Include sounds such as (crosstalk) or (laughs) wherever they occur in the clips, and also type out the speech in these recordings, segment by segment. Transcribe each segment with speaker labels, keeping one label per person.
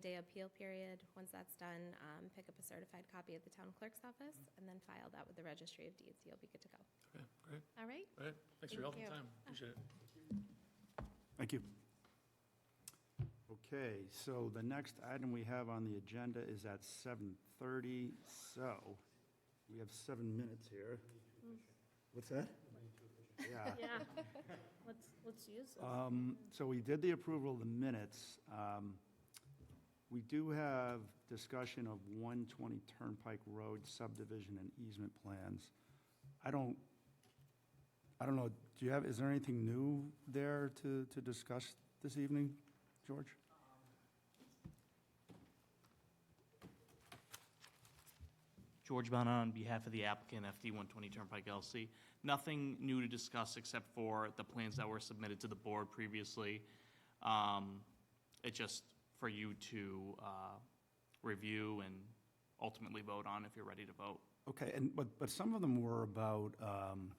Speaker 1: day appeal period. Once that's done, um, pick up a certified copy at the town clerk's office and then file that with the registry of deeds. You'll be good to go.
Speaker 2: Okay, great.
Speaker 1: All right?
Speaker 2: All right, thanks for your help
Speaker 1: Thank
Speaker 2: and
Speaker 1: you.
Speaker 2: time. Appreciate it.
Speaker 3: Thank you. Okay, so the next item we have on the agenda is at 7:30, so we have seven minutes here. What's that? Yeah.
Speaker 4: Yeah, let's, let's use it.
Speaker 3: Um, So we did the approval of the minutes. Um, We do have discussion of 120 Turnpike Road subdivision and easement plans. I don't, I don't know, do you have, is there anything new there to, to discuss this evening, George?
Speaker 5: George Bonan on behalf of the applicant, FD 120 Turnpike LLC. Nothing new to discuss except for the plans that were submitted to the board previously. Um, It's just for you to uh, review and ultimately vote on if you're ready to vote.
Speaker 3: Okay, and, but, but some of them were about um,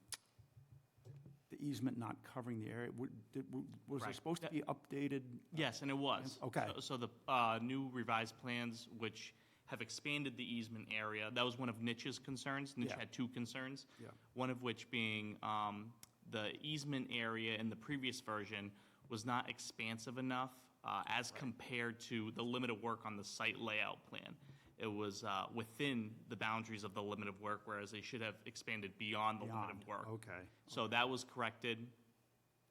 Speaker 3: the easement not covering the area. Would- did- Was there
Speaker 5: Right.
Speaker 3: supposed to be updated?
Speaker 5: Yes, and it was.
Speaker 3: Okay.
Speaker 5: So- So the uh, new revised plans, which have expanded the easement area, that was one of Nich's concerns. Nitch
Speaker 3: Yeah.
Speaker 5: had two concerns.
Speaker 3: Yeah.
Speaker 5: One of which being um, the easement area in the previous version was not expansive enough uh, as compared to the limit of work on the site layout plan. It was uh, within the boundaries of the limit of work, whereas they should have expanded beyond the limit
Speaker 3: Beyond,
Speaker 5: of work.
Speaker 3: okay.
Speaker 5: So that was corrected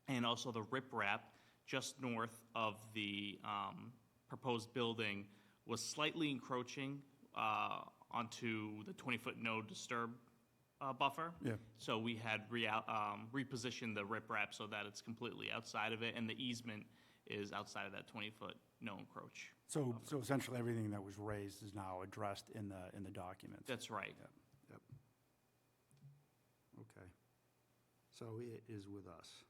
Speaker 5: and also the riprap just north of the um, proposed building was slightly encroaching uh, onto the 20-foot no disturb uh, buffer.
Speaker 3: Yeah.
Speaker 5: So we had rea- um, repositioned the riprap so that it's completely outside of it, and the easement is outside of that 20-foot no encroach.
Speaker 3: So, so essentially, everything that was raised is now addressed in the, in the documents?
Speaker 5: That's right.
Speaker 3: Yep, yep. Okay. So it is with us.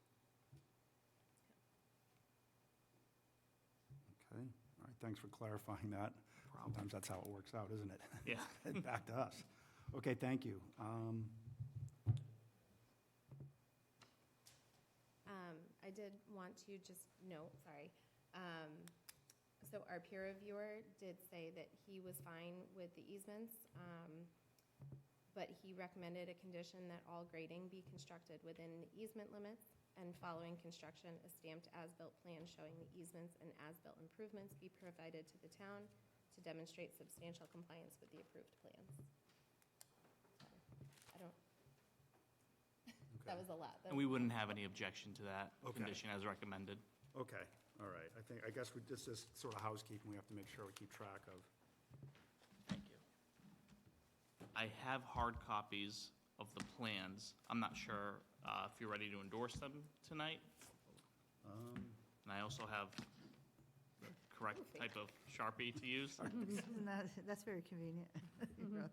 Speaker 3: Okay, all right, thanks for clarifying that. Sometimes that's how it works out, isn't it? (laughs)
Speaker 5: Yeah.
Speaker 3: Back to us. Okay, thank you. Um,
Speaker 1: Um, I did want to just note, sorry. Um, so our peer reviewer did say that he was fine with the easements, um, but he recommended a condition that all grading be constructed within the easement limits and following construction, a stamped as-built plan showing the easements and as-built improvements be provided to the town to demonstrate substantial compliance with the approved plans. So, I don't, that was a lot.
Speaker 5: And we wouldn't have any objection to that
Speaker 3: Okay.
Speaker 5: condition as recommended.
Speaker 3: Okay, all right, I think, I guess we, this is sort of housekeeping, we have to make sure we keep track of.
Speaker 5: Thank you. I have hard copies of the plans. I'm not sure uh, if you're ready to endorse them tonight.
Speaker 3: Um,
Speaker 5: And I also have the correct type of Sharpie to use.
Speaker 6: Isn't that- That's very convenient. (laughs)
Speaker 1: Mm-hmm.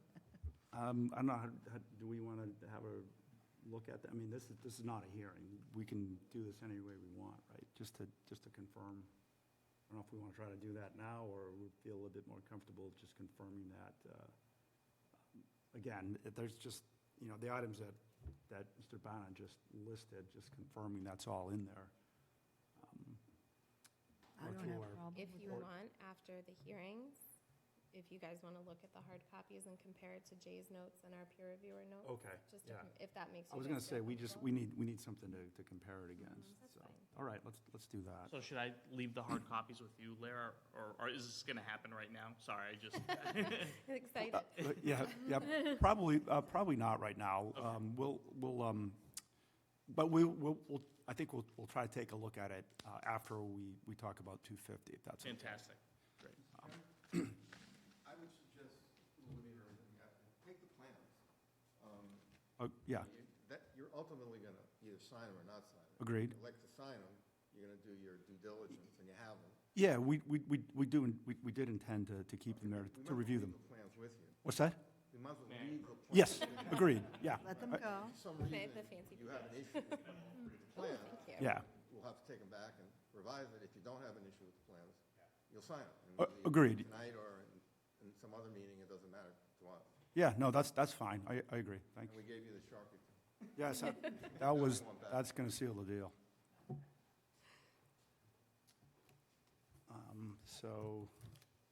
Speaker 3: Um, I don't know, how- how- do we want to have a look at that? I mean, this is, this is not a hearing. We can do this any way we want, right? Just to, just to confirm. I don't know if we want to try to do that now, or we feel a little bit more comfortable just confirming that. uh, Again, if there's just, you know, the items that, that Mr. Bana just listed, just confirming that's all in there. Um,
Speaker 6: I don't
Speaker 3: through
Speaker 6: have a
Speaker 3: our-
Speaker 6: problem
Speaker 1: If
Speaker 6: with
Speaker 1: you
Speaker 6: that.
Speaker 1: want, after the hearings, if you guys want to look at the hard copies and compare it to Jay's notes and our peer reviewer notes.
Speaker 3: Okay,
Speaker 1: Just to
Speaker 3: Oh, yeah.
Speaker 1: com- if that makes you.
Speaker 3: I was
Speaker 1: guys
Speaker 3: going to
Speaker 1: feel
Speaker 3: say, we just,
Speaker 1: comfortable.
Speaker 3: we need, we need something to, to compare it against,
Speaker 1: Mm-hmm. that's
Speaker 3: so.
Speaker 1: fine.
Speaker 3: All right, let's, let's do that.
Speaker 5: So should I leave the hard copies with you, Lara, or or is this going to happen right now? Sorry, I just, (laughs)
Speaker 1: (laughs) Excited.
Speaker 3: Uh, Yeah, yeah, probably, uh, probably not right now. Um, We'll, we'll, um, but we, we'll, we'll- I think we'll, we'll try to take a look at it uh, after we, we talk about 250, if that's. okay.
Speaker 5: fantastic. Great.
Speaker 7: I would suggest, Lemire, that you have to take the plans.
Speaker 3: Uh, Yeah,
Speaker 7: You- That, you're ultimately going to either sign them or not sign them.
Speaker 3: Agreed.
Speaker 7: If you elect to sign them, you're going to do your due diligence, and you have them.
Speaker 3: yeah, we, we, we we do, we we did intend to, to keep them there,
Speaker 7: We
Speaker 3: to
Speaker 7: might
Speaker 3: review
Speaker 7: leave
Speaker 3: them.
Speaker 7: the plans with you.
Speaker 3: What's that?
Speaker 7: We might as well leave the plans.
Speaker 3: Yes,
Speaker 7: with you.
Speaker 3: agreed, yeah.
Speaker 6: Let them go.
Speaker 7: For some
Speaker 1: Okay, the fancy
Speaker 7: reason, you have an issue with the plans.
Speaker 1: Thank you.
Speaker 3: Yeah,
Speaker 7: We'll have to take them back and revise it. If you don't have an issue with the plans, you'll sign them. and
Speaker 3: Uh,
Speaker 7: we'll leave it
Speaker 3: agreed.
Speaker 7: Tonight or in- in some other meeting, it doesn't matter to us.
Speaker 3: yeah, no, that's, that's fine, I, I agree,
Speaker 7: And
Speaker 3: thank
Speaker 7: we
Speaker 3: you.
Speaker 7: gave you the Sharpie.
Speaker 3: Yes, that that was,
Speaker 7: one back.
Speaker 3: that's going to seal the deal. Um, So,